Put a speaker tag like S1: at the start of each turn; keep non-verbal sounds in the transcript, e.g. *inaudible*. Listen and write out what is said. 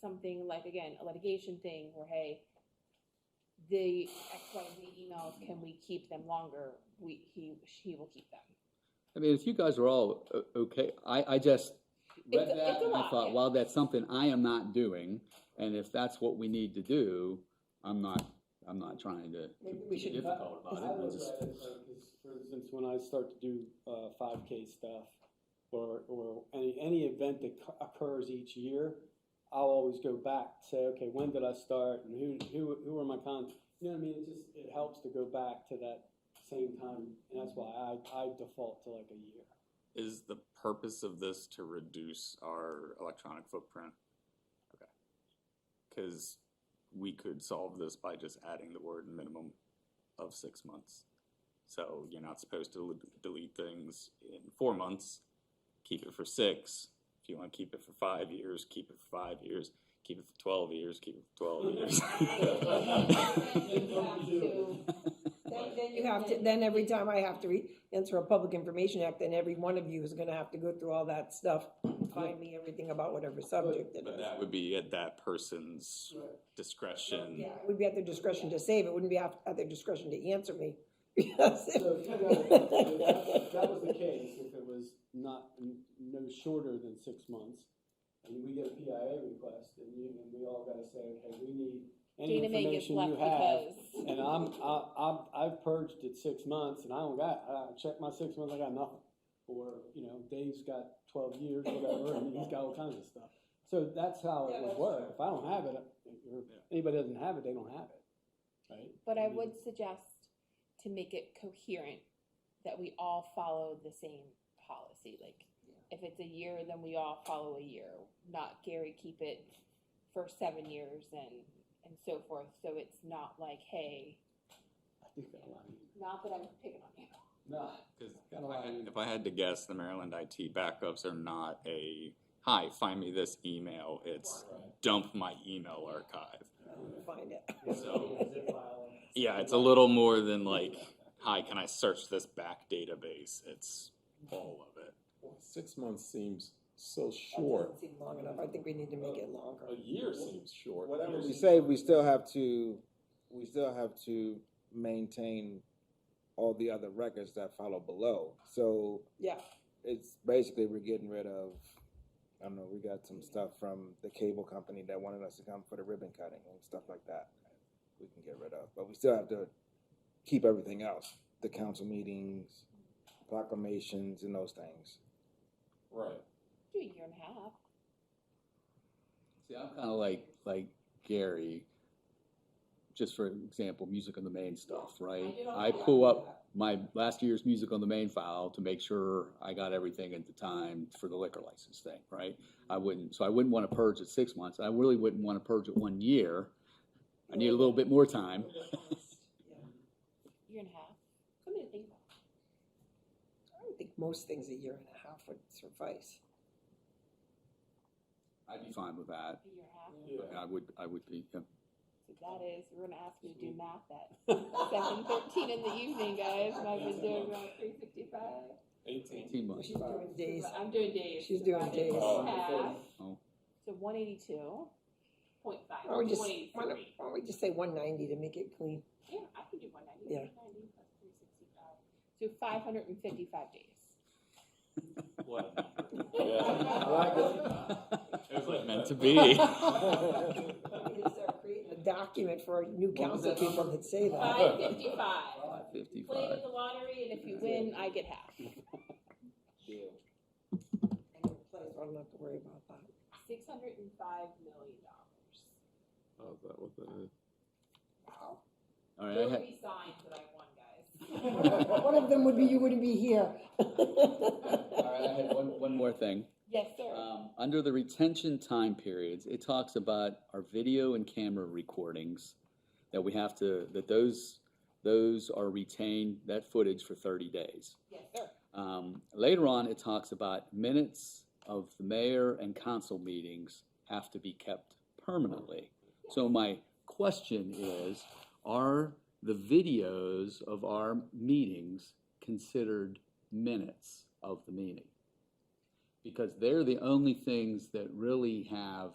S1: something like, again, a litigation thing where, hey, the X, Y, and Z emails, can we keep them longer? We, he, he will keep them.
S2: I mean, if you guys are all o- okay, I, I just read
S1: It's a- it's
S2: that
S1: a
S2: and I
S1: lot,
S2: thought,
S1: yeah.
S2: well, that's something I am not doing. And if that's what we need to do, I'm not, I'm not trying to to
S3: Maybe we
S2: be
S3: should cut-
S2: difficult
S3: I
S2: about it. I
S3: look
S2: just-
S3: at it like, 'cause for instance, when I start to do, uh, five K stuff, or, or any, any event that cu- occurs each year, I'll always go back, say, okay, when did I start, and who, who, who are my cons? You know what I mean, it just, it helps to go back to that same time, and that's why I, I default to like a year. *laughs*
S4: Is the purpose of this to reduce our electronic footprint? Okay. Cause we could solve this by just adding the word minimum of six months. So you're not supposed to l- delete things in four months, keep it for six. If you wanna keep it for five years, keep it for five years, keep it for twelve years, keep it for twelve years.
S5: Then- Then you have to, then every time I have to re, answer a Public Information Act, then every one of you is gonna have to go through all that stuff, and find me everything about whatever subject it
S4: But
S5: is.
S4: that would be at that person's discretion.
S5: Yeah, it would be at their discretion to save, it wouldn't be at, at their discretion to answer me. *laughs* Because if-
S3: So, if that if that was the case, if it was not, n- no shorter than six months, and we get a PIA request, and you, and we all gotta say, okay, we need any
S1: Dana May gets
S3: information you
S1: left
S3: have.
S1: because,
S3: And I'm, I, I'm, I've purged at six months, and I don't got, I checked my six months, I got nothing. Or, you know, Dave's got twelve years, whatever, and he's got all kinds of stuff. So that's how
S5: Yeah,
S3: it would
S5: that's
S3: work. If I don't have it, or anybody doesn't have it, they don't have it, right?
S1: but I
S3: mean-
S1: would suggest to make it coherent, that we all follow the same policy, like, if it's a year, then we all follow a year, not Gary keep it for seven years and, and so forth, so it's not like, hey,
S3: I do got a lot of,
S1: not that I'm picking on you.
S3: nah.
S4: Because if
S3: Kinda
S4: I
S3: like-
S4: had- if I had to guess, the Maryland IT backups are not a, hi, find me this email, it's dump my email archive.
S5: Find *laughs* it.
S4: So, yeah, it's a little more than like, hi, can I search this back database? It's all of it.
S6: Well, Six months seems so
S5: That
S6: short.
S5: doesn't seem long enough, I think we need to make it longer.
S6: A year seems short.
S7: Whatever we say, we still have to, we still have to maintain all the other records that follow below. So
S5: Yeah,
S7: it's basically, we're getting rid of, I don't know, we got some stuff from the cable company that wanted us to come for the ribbon cutting and stuff like that. We can get rid of, but we still have to keep everything else, the council meetings, proclamations and those things.
S6: Right.
S1: Do a year and a half.
S2: See, I'm kind of like, like Gary, just for example, Music on the Main stuff, right? I pull up my last year's Music on the Main file to make sure I got everything at the time for the liquor license thing, right? I wouldn't, so I wouldn't want to purge at six months. I really wouldn't want to purge at one year. I need a little bit more
S5: *laughs*
S2: time.
S1: Year and a half. Something to think about.
S5: I would think most things a year and a half would suffice.
S2: I'd be fine with that.
S1: A year and a half.
S2: I would, I would be, yeah.
S1: So that is, we're gonna ask you to do math at seven thirteen in the evening, guys. And I've been doing about three sixty-five.
S6: Eighteen. *laughs*
S2: Eighteen months.
S5: She's doing days.
S1: I'm doing days.
S5: She's doing
S1: Divided
S5: days.
S1: by half.
S2: Oh.
S1: So one eighty-two point five,
S5: Why don't
S1: one
S5: we just, why don't,
S1: eighty-three.
S5: why don't we just say one ninety to make it clean?
S1: Yeah, I can do one ninety.
S5: Yeah.
S1: plus three sixty-five. So five hundred and fifty-five days.
S4: What?
S1: *laughs*
S6: Yeah.
S3: I like it.
S4: It was like meant to
S6: *laughs*
S4: be.
S5: We need to start creating a document for our new
S2: What was
S5: council
S2: that
S5: people that say that.
S1: Five fifty-five. Play
S2: Fifty-five.
S1: it in the lottery and if you win, I get half.
S5: I don't play, so I don't have to worry about that. *laughs*
S1: Six hundred and five million dollars. Wow.
S2: All right, I
S1: Those
S2: had,
S1: would be signs that I won, guys. *laughs*
S5: One of them would be, you wouldn't be here. *laughs*
S2: all right, I had one, one more thing.
S1: Yes, sir.
S2: Um, under the retention time periods, it talks about our video and camera recordings, that we have to, that those, those are retained, that footage for thirty days.
S1: Yes, sir.
S2: Um, later on, it talks about minutes of the mayor and council meetings have to be kept permanently. So my question is, are the videos of our meetings considered minutes of the meeting? Because they're the only things that really have